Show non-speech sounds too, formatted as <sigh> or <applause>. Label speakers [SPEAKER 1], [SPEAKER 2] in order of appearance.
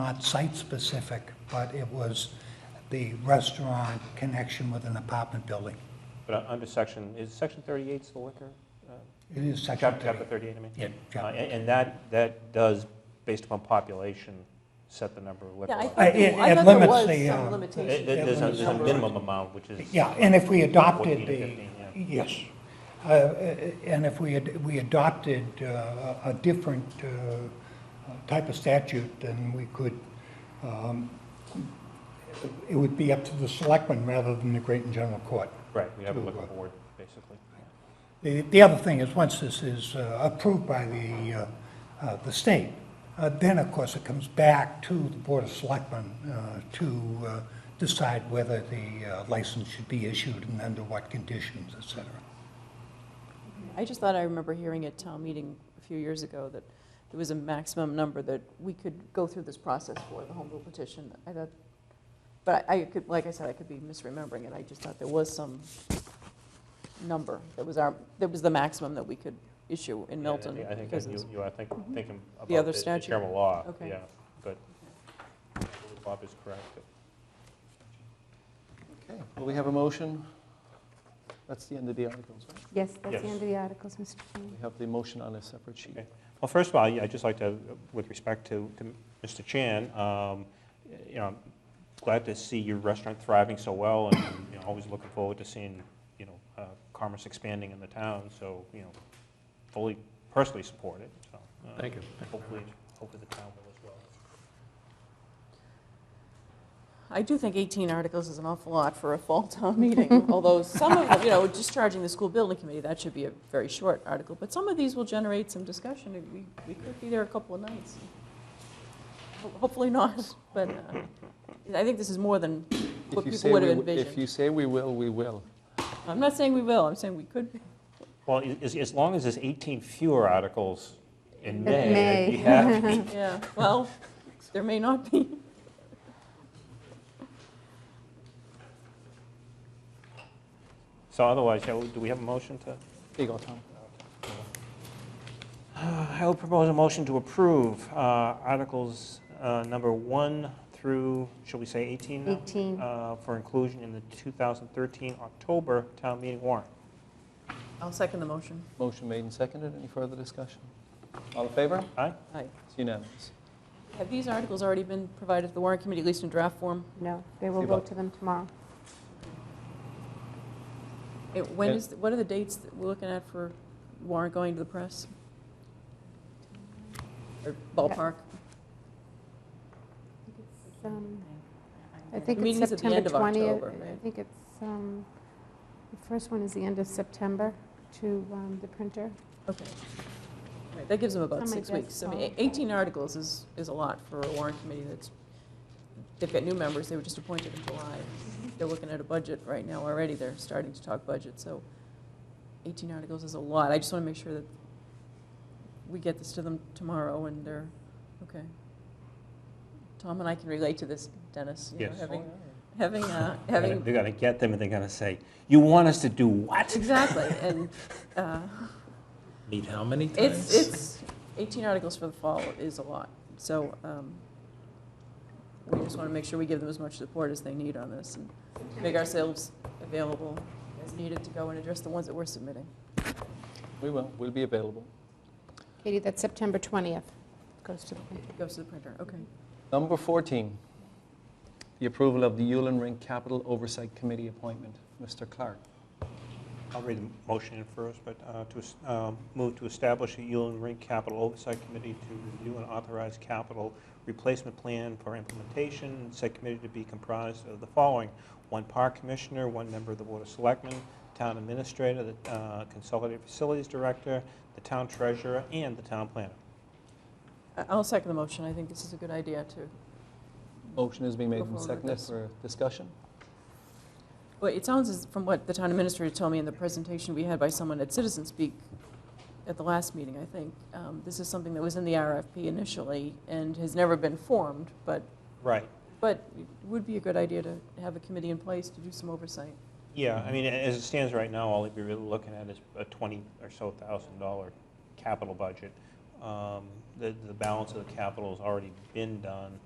[SPEAKER 1] not site-specific, but it was the restaurant connection with an apartment building.
[SPEAKER 2] But uh, under section, is section 38 still liquor? Uh,
[SPEAKER 1] It is
[SPEAKER 2] chap-
[SPEAKER 1] section
[SPEAKER 2] Chapter
[SPEAKER 1] 30.
[SPEAKER 2] 38, I mean?
[SPEAKER 1] Yeah,
[SPEAKER 2] Uh,
[SPEAKER 1] chapter.
[SPEAKER 2] And and that, that does, based upon population, set the number of liquor
[SPEAKER 3] Yeah, I
[SPEAKER 2] licenses.
[SPEAKER 1] Uh,
[SPEAKER 3] thought
[SPEAKER 1] it-
[SPEAKER 3] there- I
[SPEAKER 1] it
[SPEAKER 3] thought there
[SPEAKER 1] limits
[SPEAKER 3] was
[SPEAKER 1] the,
[SPEAKER 3] some
[SPEAKER 1] uh,
[SPEAKER 2] There-
[SPEAKER 3] limitation.
[SPEAKER 2] there- There's a
[SPEAKER 3] on the
[SPEAKER 2] there's a
[SPEAKER 3] number.
[SPEAKER 2] minimum amount, which is.
[SPEAKER 1] Yeah, and if we adopted
[SPEAKER 2] 14 to
[SPEAKER 1] the,
[SPEAKER 2] 15,
[SPEAKER 1] yes, Uh, uh, and if we, had- we adopted uh, a a different uh, type of statute, then we could, um, it would be up to the selectmen rather than the Great and General Court.
[SPEAKER 2] Right, we have a
[SPEAKER 1] to,
[SPEAKER 2] liquor
[SPEAKER 1] uh,
[SPEAKER 2] board, basically.
[SPEAKER 1] The, the other thing is, once this is uh, approved by the, uh, uh, the state, uh, then of course it comes back to the Board of Selectmen uh, to uh, decide whether the uh, license should be issued and under what conditions, et cetera.
[SPEAKER 3] I just thought I remember hearing at town meeting a few years ago that there was a maximum number that we could go through this process for, the home rule petition. I thought, but I I could, like I said, I could be misremembering it. I just thought there was some number that was our, that was the maximum that we could issue in
[SPEAKER 2] Yeah,
[SPEAKER 3] Milton.
[SPEAKER 2] I think
[SPEAKER 3] because
[SPEAKER 2] that
[SPEAKER 3] it's-
[SPEAKER 2] you-
[SPEAKER 3] Mm-hmm.
[SPEAKER 2] you are think- thinking about
[SPEAKER 3] The other
[SPEAKER 2] the- the
[SPEAKER 3] statute.
[SPEAKER 2] General law,
[SPEAKER 3] Okay.
[SPEAKER 2] yeah, but Bob is correct.
[SPEAKER 4] Okay, well, we have a motion. That's the end of the articles, right?
[SPEAKER 5] Yes, that's the
[SPEAKER 2] Yes.
[SPEAKER 5] end of the articles, Mr. Chairman.
[SPEAKER 4] We have the motion on a separate sheet.
[SPEAKER 2] Okay. Well, first of all, yeah, I'd just like to, with respect to to Mr. Chan, um, you know, I'm glad to see your restaurant thriving so well, and, you know, always looking forward to seeing, you know, uh, commerce expanding in the town, so, you know, fully, personally support it, so. uh,
[SPEAKER 6] Thank you.
[SPEAKER 2] Hopefully, hopefully the town will as well.
[SPEAKER 3] I do think 18 articles is an awful lot for a fall town <laughs> meeting, although some of them, you know, discharging the school building committee, that should be a very short article, but some of these will generate some discussion, and we, we could be there a couple of nights. Ho- Hopefully not, but uh, I think this is more than what
[SPEAKER 4] If you
[SPEAKER 3] people
[SPEAKER 4] say
[SPEAKER 3] would
[SPEAKER 4] we,
[SPEAKER 3] have
[SPEAKER 4] w- if you
[SPEAKER 3] envisioned.
[SPEAKER 4] say we will, we will.
[SPEAKER 3] I'm not saying we will, I'm saying we could. be.
[SPEAKER 2] Well, i- as, as long as there's 18 fewer articles in
[SPEAKER 5] In
[SPEAKER 2] May, I'd be
[SPEAKER 5] May.
[SPEAKER 2] happy.
[SPEAKER 3] <laughs> Yeah, well, there may not be.
[SPEAKER 2] So otherwise, yeah, do we have a motion to?
[SPEAKER 4] There you go, Tom.
[SPEAKER 2] Uh, I will propose a motion to approve uh, Articles uh, number 1 through, shall we say 18 now?
[SPEAKER 5] 18.
[SPEAKER 2] Uh, For inclusion in the 2013 October town meeting warrant.
[SPEAKER 3] I'll second the motion.
[SPEAKER 4] Motion made and seconded. Any further discussion? All in favor?
[SPEAKER 2] Aye?
[SPEAKER 3] Aye.
[SPEAKER 4] It's unanimous.
[SPEAKER 3] Have these articles already been provided to the warrant committee, at least in draft form?
[SPEAKER 5] No, they will
[SPEAKER 4] Give up.
[SPEAKER 5] vote to them tomorrow.
[SPEAKER 3] It- When
[SPEAKER 4] Yeah.
[SPEAKER 3] is, what are the dates that we're looking at for warrant going to the press? Or ballpark?
[SPEAKER 5] It's, um, I think
[SPEAKER 3] The
[SPEAKER 5] it's
[SPEAKER 3] meeting's at the
[SPEAKER 5] September
[SPEAKER 3] end of
[SPEAKER 5] 20th.
[SPEAKER 3] October,
[SPEAKER 5] I
[SPEAKER 3] right?
[SPEAKER 5] think it's, um, the first one is the end of September to um, the printer.
[SPEAKER 3] Okay. All right, That gives them about
[SPEAKER 5] Somebody
[SPEAKER 3] six
[SPEAKER 5] does
[SPEAKER 3] weeks. I mean,
[SPEAKER 5] follow.
[SPEAKER 3] eight- 18 articles is, is a lot for a warrant committee that's, they've got new members, they were just appointed in July. They're looking at a budget right now already, they're starting to talk budget, so 18 articles is a lot. I just want to make sure that we get this to them tomorrow and they're, okay. Tom and I can relate to this, Dennis. you know,
[SPEAKER 2] Yes.
[SPEAKER 3] Having, having, uh, having
[SPEAKER 2] They're going to get them, and they're going to say, "You want us to do what?"
[SPEAKER 3] Exactly, and uh,
[SPEAKER 6] Meet how many times?
[SPEAKER 3] it's, it's, 18 articles for the fall is a lot, so um, we just want to make sure we give them as much support as they need on this, and make ourselves available as needed to go and address the ones that we're submitting.
[SPEAKER 4] We will. We'll be available.
[SPEAKER 5] Katie, that's September 20th, goes to the printer.
[SPEAKER 3] It goes to the printer, okay.
[SPEAKER 4] Number 14, the approval of the Yulin Ring Capital Oversight Committee appointment. Mr. Clark.
[SPEAKER 2] I'll read the motion in first, but uh, to es- um, move to establish a Yulin Rink Capital Oversight Committee to review and authorize capital replacement plan for implementation. Said committee to be comprised of the following: one park commissioner, one member of the Board of Selectmen, town administrator, the uh, consolidated facilities director, the town treasurer, and the town planner.
[SPEAKER 3] I- I'll second the motion, I think this is a good idea to,
[SPEAKER 4] Motion has been made
[SPEAKER 3] Go
[SPEAKER 4] and
[SPEAKER 3] forward with
[SPEAKER 4] seconded
[SPEAKER 3] this.
[SPEAKER 4] for discussion.
[SPEAKER 3] well, it sounds as, from what the town administrator told me in the presentation we had by someone at Citizen Speak at the last meeting, I think, um, this is something that was in the RFP initially and has never been formed, but
[SPEAKER 2] Right.
[SPEAKER 3] But it would be a good idea to have a committee in place to do some oversight.
[SPEAKER 2] Yeah, I mean, a- as it stands right now, all we're really looking at is a twenty or so thousand dollar capital budget. Um, The, the balance of the capital has already been done